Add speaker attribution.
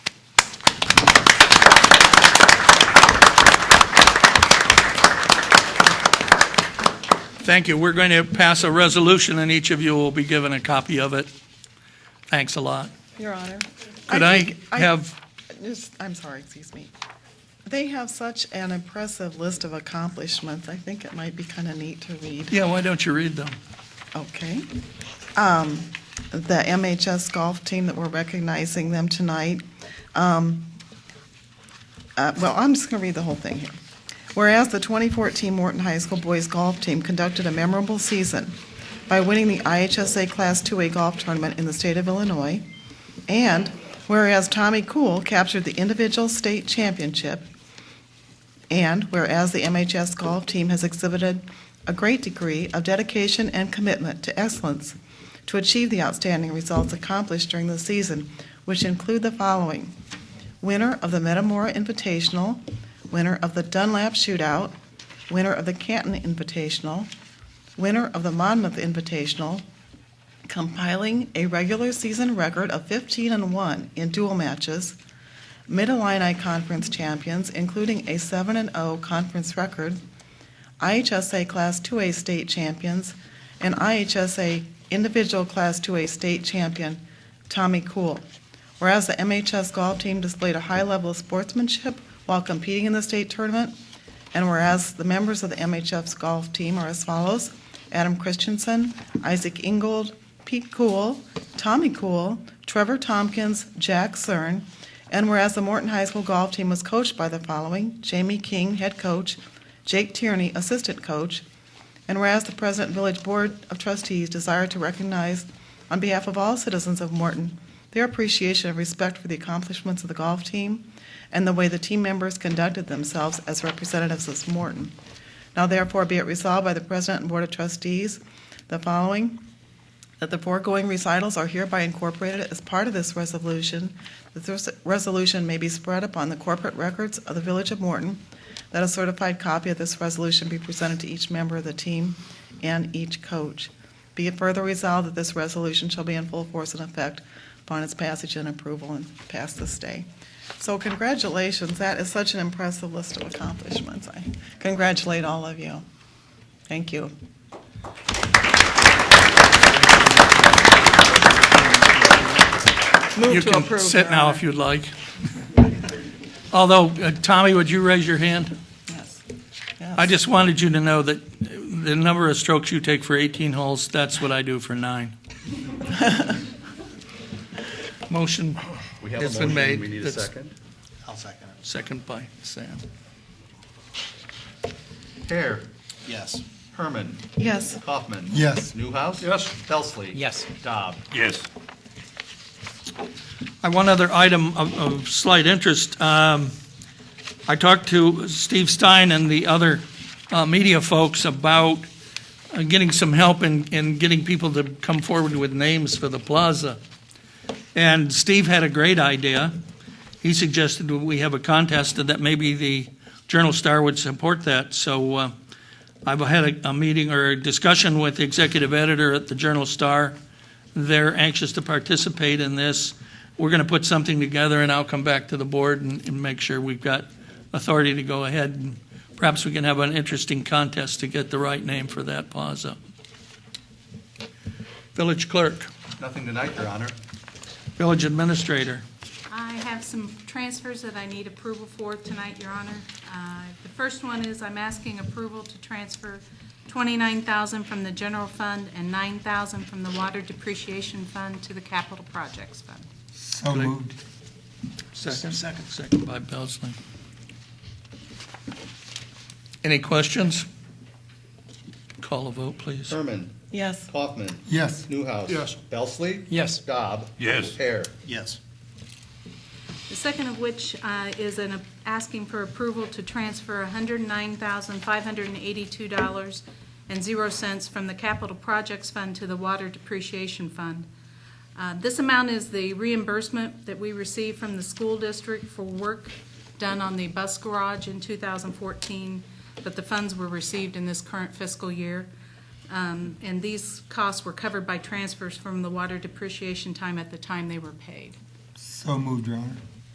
Speaker 1: Thank you. We're going to pass a resolution, and each of you will be given a copy of it. Thanks a lot.
Speaker 2: Your Honor.
Speaker 1: Could I
Speaker 2: think-
Speaker 1: have,
Speaker 2: just- I'm sorry, excuse me. They have such an impressive list of accomplishments. I think it might be kind of neat to read.
Speaker 1: yeah, why don't you read them?
Speaker 2: Okay. Um, The MHS golf team that we're recognizing them tonight. Um, uh, Well, I'm just going to read the whole thing here. Whereas the 2014 Morton High School boys golf team conducted a memorable season by winning the IHSA Class 2A golf tournament in the state of Illinois, and whereas Tommy Cool captured the individual state championship, and whereas the MHS golf team has exhibited a great degree of dedication and commitment to excellence to achieve the outstanding results accomplished during the season, which include the following: winner of the Metamora Invitational, winner of the Dunlap Shootout, winner of the Canton Invitational, winner of the Monmouth Invitational, compiling a regular season record of 15 and 1 in dual matches, Mid-Illini Conference champions, including a 7 and 0 conference record, IHSA Class 2A state champions, and IHSA individual Class 2A state champion, Tommy Cool. Whereas the MHS golf team displayed a high level of sportsmanship while competing in the state tournament, and whereas the members of the MHF's golf team are as follows: Adam Christensen, Isaac Ingold, Pete Cool, Tommy Cool, Trevor Tompkins, Jack Cern, and whereas the Morton High School golf team was coached by the following: Jamie King, head coach, Jake Tierney, assistant coach, and whereas the President Village Board of Trustees desire to recognize, on behalf of all citizens of Morton, their appreciation and respect for the accomplishments of the golf team and the way the team members conducted themselves as representatives of Morton. Now therefore be it resolved by the President and Board of Trustees, the following, that the foregoing recitals are hereby incorporated as part of this resolution, that this resolution may be spread upon the corporate records of the Village of Morton, that a certified copy of this resolution be presented to each member of the team and each coach. Be it further resolved that this resolution shall be in full force and effect upon its passage and approval and pass this day. So congratulations, that is such an impressive list of accomplishments. I congratulate all of you. Thank you.
Speaker 1: You
Speaker 2: Move to
Speaker 1: can
Speaker 2: approve.
Speaker 1: sit
Speaker 2: Your
Speaker 1: now
Speaker 2: Honor.
Speaker 1: if you'd like. Although, uh, Tommy, would you raise your hand?
Speaker 2: Yes.
Speaker 1: I
Speaker 2: Yes.
Speaker 1: just wanted you to know that the number of strokes you take for 18 holes, that's what I do for nine. Motion
Speaker 3: We have a
Speaker 1: has been
Speaker 3: motion,
Speaker 1: made.
Speaker 3: we need a
Speaker 1: That's
Speaker 3: second.
Speaker 4: I'll second it.
Speaker 1: Second by Sam.
Speaker 3: Hare,
Speaker 4: Yes.
Speaker 3: Herman,
Speaker 2: Yes.
Speaker 3: Kaufman.
Speaker 4: Yes.
Speaker 3: Newhouse.
Speaker 1: Yes.
Speaker 3: Belsley.
Speaker 4: Yes.
Speaker 3: Dobb.
Speaker 1: Yes. I have one other item of, of slight interest. Um, I talked to Steve Stein and the other uh, media folks about uh, getting some help in, in getting people to come forward with names for the plaza. And Steve had a great idea. He suggested that we have a contest and that maybe the Journal Star would support that. So uh, I've had a, a meeting or a discussion with the executive editor at the Journal Star they're anxious to participate in this. We're going to put something together, and I'll come back to the board and, and make sure we've got authority to go ahead. and Perhaps we can have an interesting contest to get the right name for that plaza. Village clerk,
Speaker 3: Nothing tonight, Your Honor.
Speaker 1: village administrator.
Speaker 5: I have some transfers that I need approval for tonight, Your Honor. Uh, The first one is I'm asking approval to transfer 29000 from the general fund and 9000 from the water depreciation fund to the capital projects fund.
Speaker 4: So moved.
Speaker 1: Second. Second. Second by Belsley. Any questions? Call a vote, please.
Speaker 3: Herman,
Speaker 2: Yes.
Speaker 3: Kaufman,
Speaker 4: Yes.
Speaker 3: Newhouse.
Speaker 1: Yes.
Speaker 3: Belsley.
Speaker 4: Yes.
Speaker 3: Dobb.
Speaker 1: Yes.
Speaker 3: Hare.
Speaker 4: Yes.
Speaker 5: The second of which uh, is an, asking for approval to transfer $109,582.00 from the capital projects fund to the water depreciation fund. Uh, This amount is the reimbursement that we received from the school district for work done on the bus garage in 2014, but the funds were received in this current fiscal year. Um, And these costs were covered by transfers from the water depreciation time at the time they were paid.
Speaker 4: So moved, Your Honor.